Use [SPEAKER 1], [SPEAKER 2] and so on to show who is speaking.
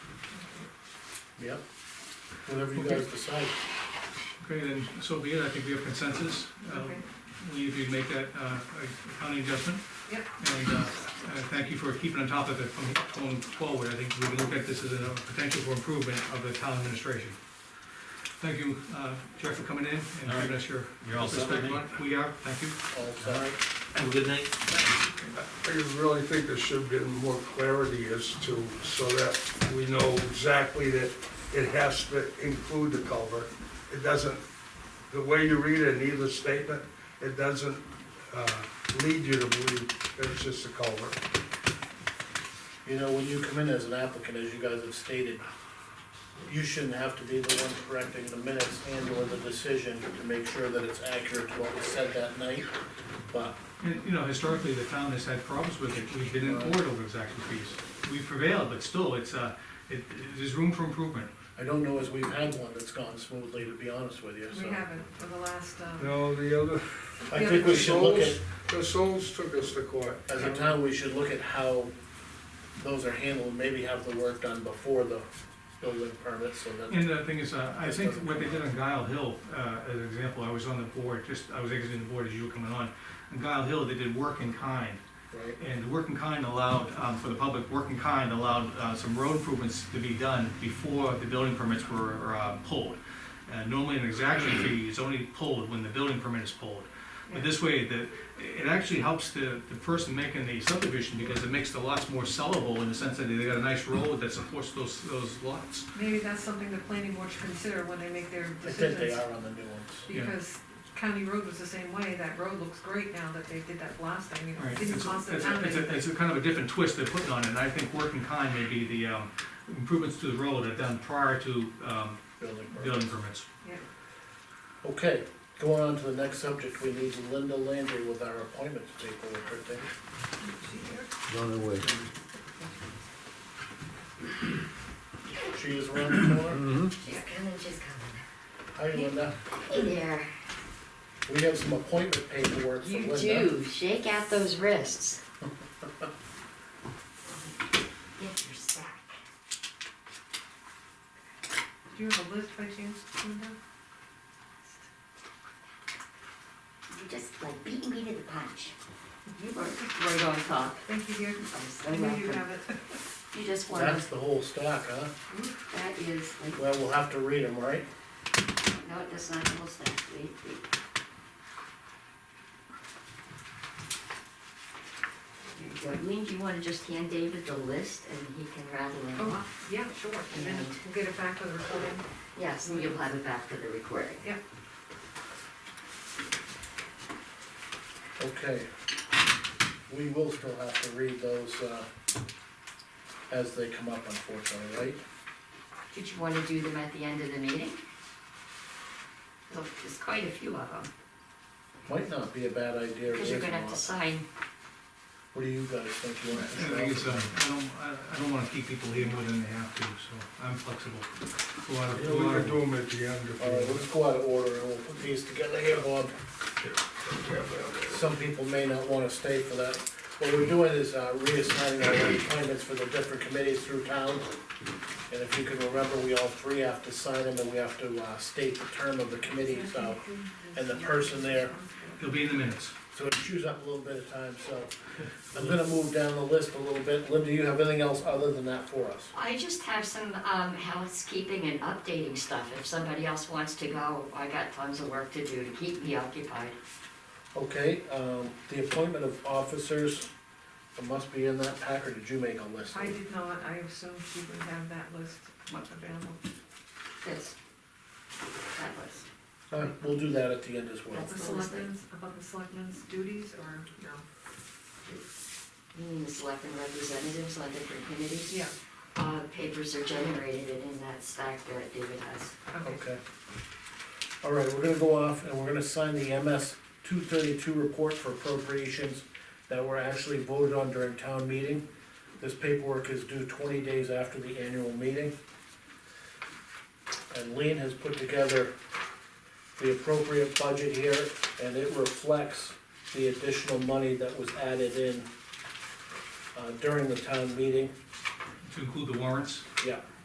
[SPEAKER 1] Yep, whatever you
[SPEAKER 2] Okay.
[SPEAKER 1] guys decide.
[SPEAKER 2] Okay, then, so be it, I think we have consensus. Uh,
[SPEAKER 3] Okay.
[SPEAKER 2] We, if you make that uh, accounting adjustment.
[SPEAKER 3] Yep.
[SPEAKER 2] And uh, uh, thank you for keeping on top of it from going forward, I think we can look at this as a potential for improvement of the town administration. Thank you, uh, Jeff, for coming in
[SPEAKER 4] All
[SPEAKER 2] and
[SPEAKER 4] right.
[SPEAKER 2] giving us your
[SPEAKER 4] You're all set with
[SPEAKER 2] perspective
[SPEAKER 4] me?
[SPEAKER 2] on it. We are, thank you.
[SPEAKER 4] All right, have a good night.
[SPEAKER 5] I really think there should be more clarity as to, so that we know exactly that it has to include the culvert. It doesn't, the way you read it in either statement, it doesn't, uh, lead you to believe that it's just a culvert.
[SPEAKER 1] You know, when you come in as an applicant, as you guys have stated, you shouldn't have to be the one correcting the minutes and or the decision to make sure that it's accurate to what was said that night. But
[SPEAKER 2] And, you know, historically, the town has had problems with it, we've been in court over exact fees. We prevailed, but still, it's, uh, it, there's room for improvement.
[SPEAKER 1] I don't know as we've had one that's gone smoothly, to be honest with you,
[SPEAKER 3] We
[SPEAKER 1] so.
[SPEAKER 3] haven't for the last, um,
[SPEAKER 5] No, the other,
[SPEAKER 1] I think we should look at,
[SPEAKER 5] the Souls took us to court.
[SPEAKER 1] as a town, we should look at how those are handled, and maybe have the work done before the building permit, so that.
[SPEAKER 2] And the thing is, uh, I think what they did on Guile Hill, uh, as an example, I was on the board, just, I was exiting the board as you were coming on. On Guile Hill, they did work in kind,
[SPEAKER 1] Right.
[SPEAKER 2] and the work in kind allowed, um, for the public, work in kind allowed, uh, some road improvements to be done before the building permits were, uh, pulled. Uh, normally an exaction fee is only pulled when the building permit is pulled. But this way, the, it actually helps the, the person making the subdivision because it makes the lots more sellable in the sense that they got a nice road that supports those, those lots.
[SPEAKER 3] maybe that's something the planning board should consider when they make their
[SPEAKER 1] I think they
[SPEAKER 3] decisions.
[SPEAKER 1] are on the new ones.
[SPEAKER 2] Yeah.
[SPEAKER 3] Because County Road was the same way, that road looks great now that they did that blasting, you know,
[SPEAKER 2] Right,
[SPEAKER 3] it
[SPEAKER 2] it's,
[SPEAKER 3] didn't cost the
[SPEAKER 2] it's,
[SPEAKER 3] town
[SPEAKER 2] it's, a-
[SPEAKER 3] anything.
[SPEAKER 2] it's a kind of a different twist they're putting on it, and I think work in kind may be the, um, improvements to the road are done prior to, um,
[SPEAKER 1] Building permit.
[SPEAKER 2] building permits.
[SPEAKER 3] Yeah.
[SPEAKER 1] Okay, going on to the next subject, we need Linda Landry with our appointment paperwork, I think. She is around the corner.
[SPEAKER 6] She's coming, she's coming.
[SPEAKER 1] Hi, Linda.
[SPEAKER 6] Hey there.
[SPEAKER 1] We have some appointment paperwork for
[SPEAKER 6] You
[SPEAKER 1] Linda.
[SPEAKER 6] do, shake out those wrists. Get your sack.
[SPEAKER 3] Do you have a list by chance, Linda?
[SPEAKER 6] You're just like beating me to the punch. You were right on top.
[SPEAKER 3] Thank you, dear.
[SPEAKER 6] I'm so
[SPEAKER 3] I knew you
[SPEAKER 6] welcome.
[SPEAKER 3] have it.
[SPEAKER 6] You just want,
[SPEAKER 1] That's the whole stack, huh?
[SPEAKER 6] that is, like,
[SPEAKER 1] Well, we'll have to read them, right?
[SPEAKER 6] no, that's not the whole stack. Wait, wait. There you go. Lean, do you wanna just hand David the list and he can rattle it off?
[SPEAKER 3] Oh, yeah, sure, and then we'll get it back with the recording.
[SPEAKER 6] Yes, and you'll have it back for the recording.
[SPEAKER 1] Okay. We will still have to read those, uh, as they come up unfortunately, right?
[SPEAKER 6] Did you wanna do them at the end of the meeting? Look, there's quite a few of them,
[SPEAKER 1] Might not be a bad idea.
[SPEAKER 6] because you're gonna
[SPEAKER 1] raising
[SPEAKER 6] have
[SPEAKER 1] lots.
[SPEAKER 6] to sign,
[SPEAKER 1] What do you guys think you
[SPEAKER 2] I
[SPEAKER 1] want to
[SPEAKER 2] think it's, uh, I don't, I, I don't wanna keep people here more than they have to, so I'm flexible. A lot of-
[SPEAKER 5] We
[SPEAKER 2] a lot
[SPEAKER 5] could
[SPEAKER 2] of-
[SPEAKER 5] do them at the end if
[SPEAKER 1] All right,
[SPEAKER 5] you
[SPEAKER 1] let's go out of order and we'll put these together here, Bob. Some people may not wanna stay for that. What we're doing is uh, reassigning our appointments for the different committees through town. And if you can remember, we all three have to sign them and we have to uh, state the term of the committee, so. And the person there,
[SPEAKER 2] They'll be in the minutes.
[SPEAKER 1] so it chews up a little bit of time, so. I'm gonna move down the list a little bit. Linda, you have anything else other than that for us?
[SPEAKER 6] I just have some, um, housekeeping and updating stuff, if somebody else wants to go, I got tons of work to do to keep me occupied.
[SPEAKER 1] Okay, um, the appointment of officers, it must be in that pack, or did you make a list?
[SPEAKER 3] I did not, I assumed you would have that list available.
[SPEAKER 6] This, that was,
[SPEAKER 1] Uh, we'll do that at the end as well.
[SPEAKER 3] About the selectmen's, about the selectmen's duties, or no?
[SPEAKER 6] you mean the selectmen representatives, like different committees?
[SPEAKER 3] Yeah,
[SPEAKER 6] Uh, papers are generated and in that stack there that David has.
[SPEAKER 3] okay.
[SPEAKER 1] Okay. All right, we're gonna go off and we're gonna sign the MS two thirty-two report for appropriations that were actually voted on during town meeting. This paperwork is due twenty days after the annual meeting. And Lean has put together the appropriate budget here, and it reflects the additional money that was added in uh, during the town meeting.
[SPEAKER 2] To include the warrants,
[SPEAKER 1] Yeah,